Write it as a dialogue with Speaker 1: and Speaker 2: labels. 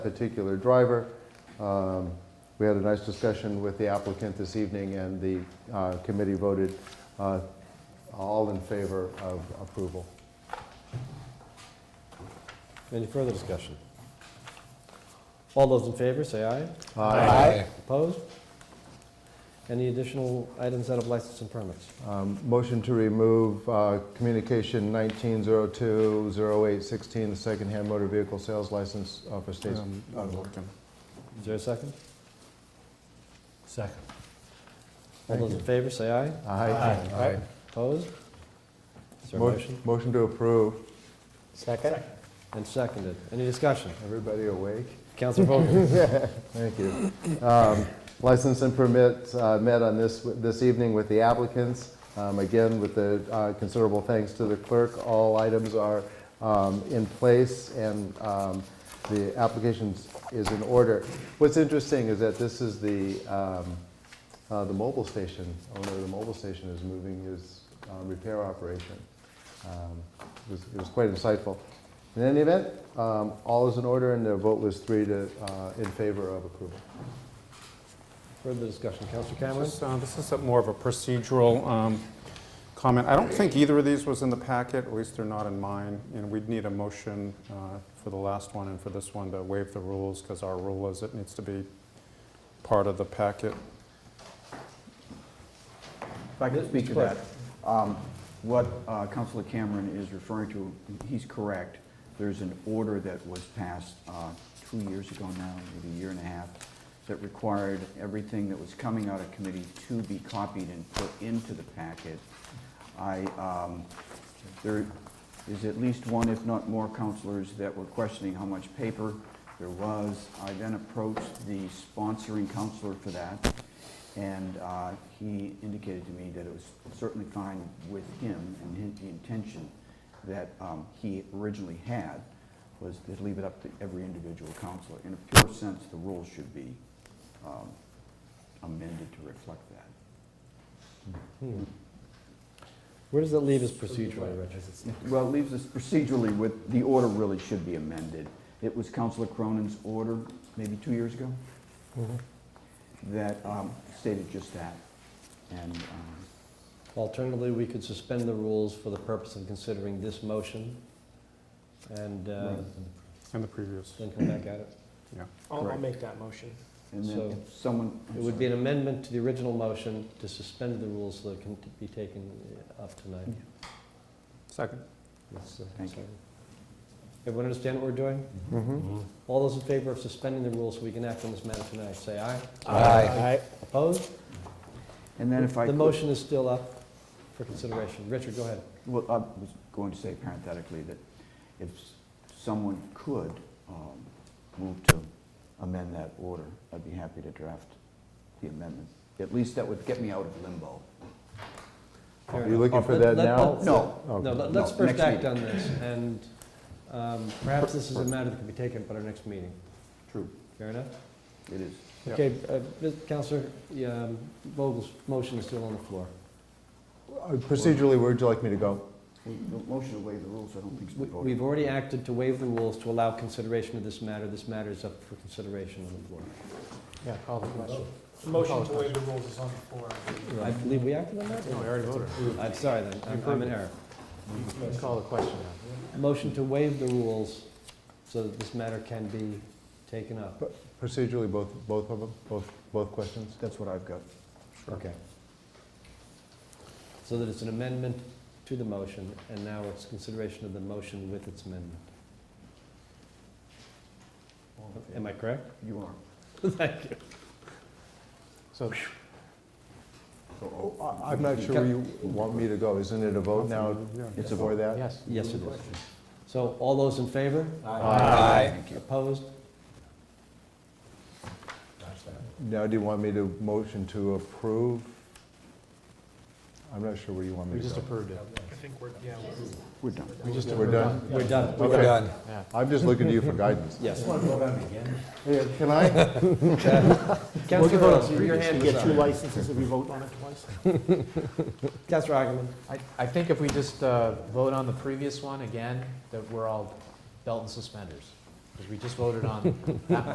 Speaker 1: particular driver. Um, We had a nice discussion with the applicant this evening, and the uh, committee voted uh, all in favor of approval.
Speaker 2: Any further discussion? All those in favor, say aye.
Speaker 3: Aye.
Speaker 2: Opposed? Any additional items out of license and permits?
Speaker 1: Um, Motion to remove uh, communication 1902-0816, the secondhand motor vehicle sales license uh, for State's
Speaker 4: Um,
Speaker 2: Is there a second?
Speaker 3: Second.
Speaker 2: All those in favor, say aye.
Speaker 1: Aye.
Speaker 2: Opposed? Is there a
Speaker 1: Mo-
Speaker 2: motion?
Speaker 1: Motion to approve.
Speaker 3: Second?
Speaker 2: And seconded. Any discussion?
Speaker 1: Everybody awake?
Speaker 2: Counselor Vogel?
Speaker 1: Thank you. Um, License and permit uh, met on this, this evening with the applicants. Um, Again, with the uh, considerable thanks to the clerk, all items are um, in place and um, the application is in order. What's interesting is that this is the, um, uh, the mobile station, owner of the mobile station is moving his uh, repair operation. Um, It was- it was quite insightful. In any event, um, all is in order, and the vote was three to, uh, in favor of approval.
Speaker 2: Further discussion. Counselor Cameron?
Speaker 4: This uh, this is a- more of a procedural um, comment. I don't think either of these was in the packet, at least they're not in mine. And we'd need a motion uh, for the last one and for this one to waive the rules, because our rule is it needs to be part of the packet.
Speaker 5: If I could speak to
Speaker 2: Please.
Speaker 5: that, um, what uh, Counselor Cameron is referring to, he's correct. There's an order that was passed uh, two years ago now, maybe a year and a half, that required everything that was coming out of committee to be copied and put into the packet. I, um, there is at least one, if not more, counselors that were questioning how much paper there was. I then approached the sponsoring counselor for that, and uh, he indicated to me that it was certainly fine with him and his- the intention that um, he originally had was to leave it up to every individual counselor. In a pure sense, the rules should be um, amended to reflect that.
Speaker 2: Hmm. Where does that leave us procedurally, Richard?
Speaker 5: Well, it leaves us procedurally with, the order really should be amended. It was Counselor Cronin's order, maybe two years ago, that um, stated just that. And um,
Speaker 2: Alternatively, we could suspend the rules for the purpose of considering this motion and uh,
Speaker 4: And the previous.
Speaker 2: then come back at it.
Speaker 6: I'll, I'll
Speaker 5: Correct.
Speaker 6: make that motion.
Speaker 5: and then
Speaker 2: So,
Speaker 5: if someone, I'm
Speaker 2: It would be
Speaker 5: sorry.
Speaker 2: an amendment to the original motion to suspend the rules so that it can t- be taken uh, up tonight.
Speaker 4: Second.
Speaker 2: That's, uh,
Speaker 5: Thank you.
Speaker 2: sorry. Everyone understand what we're doing? All those in favor of suspending the rules so we can act on this matter tonight, say aye.
Speaker 3: Aye.
Speaker 2: Opposed?
Speaker 5: And then if I
Speaker 2: The
Speaker 5: could,
Speaker 2: motion is still up for consideration. Richard, go ahead.
Speaker 5: well, I was going to say parenthetically that if s- someone could um, move to amend that order, I'd be happy to draft the amendment. At least that would get me out of limbo.
Speaker 1: Are
Speaker 2: Fair
Speaker 1: you
Speaker 2: enough.
Speaker 1: looking for
Speaker 2: Let-
Speaker 1: that
Speaker 2: let-
Speaker 1: now?
Speaker 2: let-
Speaker 5: No,
Speaker 1: Okay.
Speaker 2: No, let- let's
Speaker 5: No,
Speaker 2: first
Speaker 5: next
Speaker 2: act
Speaker 5: meeting.
Speaker 2: on this, and um, perhaps this is a matter that can be taken up at our next meeting.
Speaker 5: true,
Speaker 2: Fair enough?
Speaker 5: it is.
Speaker 4: Yeah.
Speaker 2: Okay, uh, Ms. Counselor yeah, um, Vogel's motion is still on the floor.
Speaker 1: Uh, Procedurally, where'd you like me to go?
Speaker 5: The motion to waive the rules, I don't think is
Speaker 2: We-
Speaker 5: voted.
Speaker 2: We've already acted to waive the rules to allow consideration of this matter. This matter is up for consideration on the floor.
Speaker 3: Yeah, call the question.
Speaker 6: The motion to waive the rules is on the floor.
Speaker 2: I believe we acted on that?
Speaker 3: No, I already voted.
Speaker 2: I'm sorry then, I'm- I'm in error.
Speaker 3: Call the question
Speaker 2: Motion to waive the rules so that this matter can be taken up.
Speaker 1: Procedurally, both, both of them, both, both questions?
Speaker 5: That's what I've got.
Speaker 2: Okay. So that it's an amendment to the motion, and now it's consideration of the motion with its amendment. Am I correct?
Speaker 5: You are.
Speaker 2: Thank you.
Speaker 1: So
Speaker 5: So, oh,
Speaker 1: I- I'm not sure where you want me to go. Isn't it a vote now
Speaker 5: It's a
Speaker 1: for
Speaker 5: vote.
Speaker 1: that?
Speaker 3: Yes.
Speaker 2: Yes, it is. So all those in favor?
Speaker 5: Thank you.
Speaker 2: Opposed?
Speaker 1: Now, do you want me to motion to approve? I'm not sure where you want
Speaker 3: We
Speaker 1: me to
Speaker 3: just
Speaker 1: go.
Speaker 3: approved it.
Speaker 6: I think we're, yeah, we're-
Speaker 5: We're done.
Speaker 3: We just
Speaker 1: We're
Speaker 3: approved it.
Speaker 1: done?
Speaker 2: We're done.
Speaker 1: We're done. I'm just looking to you for guidance.
Speaker 2: Yes.
Speaker 1: Yeah, Can I?
Speaker 2: Counselor Earls, your hand
Speaker 6: Get
Speaker 2: is
Speaker 6: two
Speaker 2: up.
Speaker 6: licenses if we vote on it twice.
Speaker 2: Counselor Augerman.
Speaker 3: I, I think if we just uh, vote on the previous one again, that we're all belt and suspenders.
Speaker 2: because we just voted on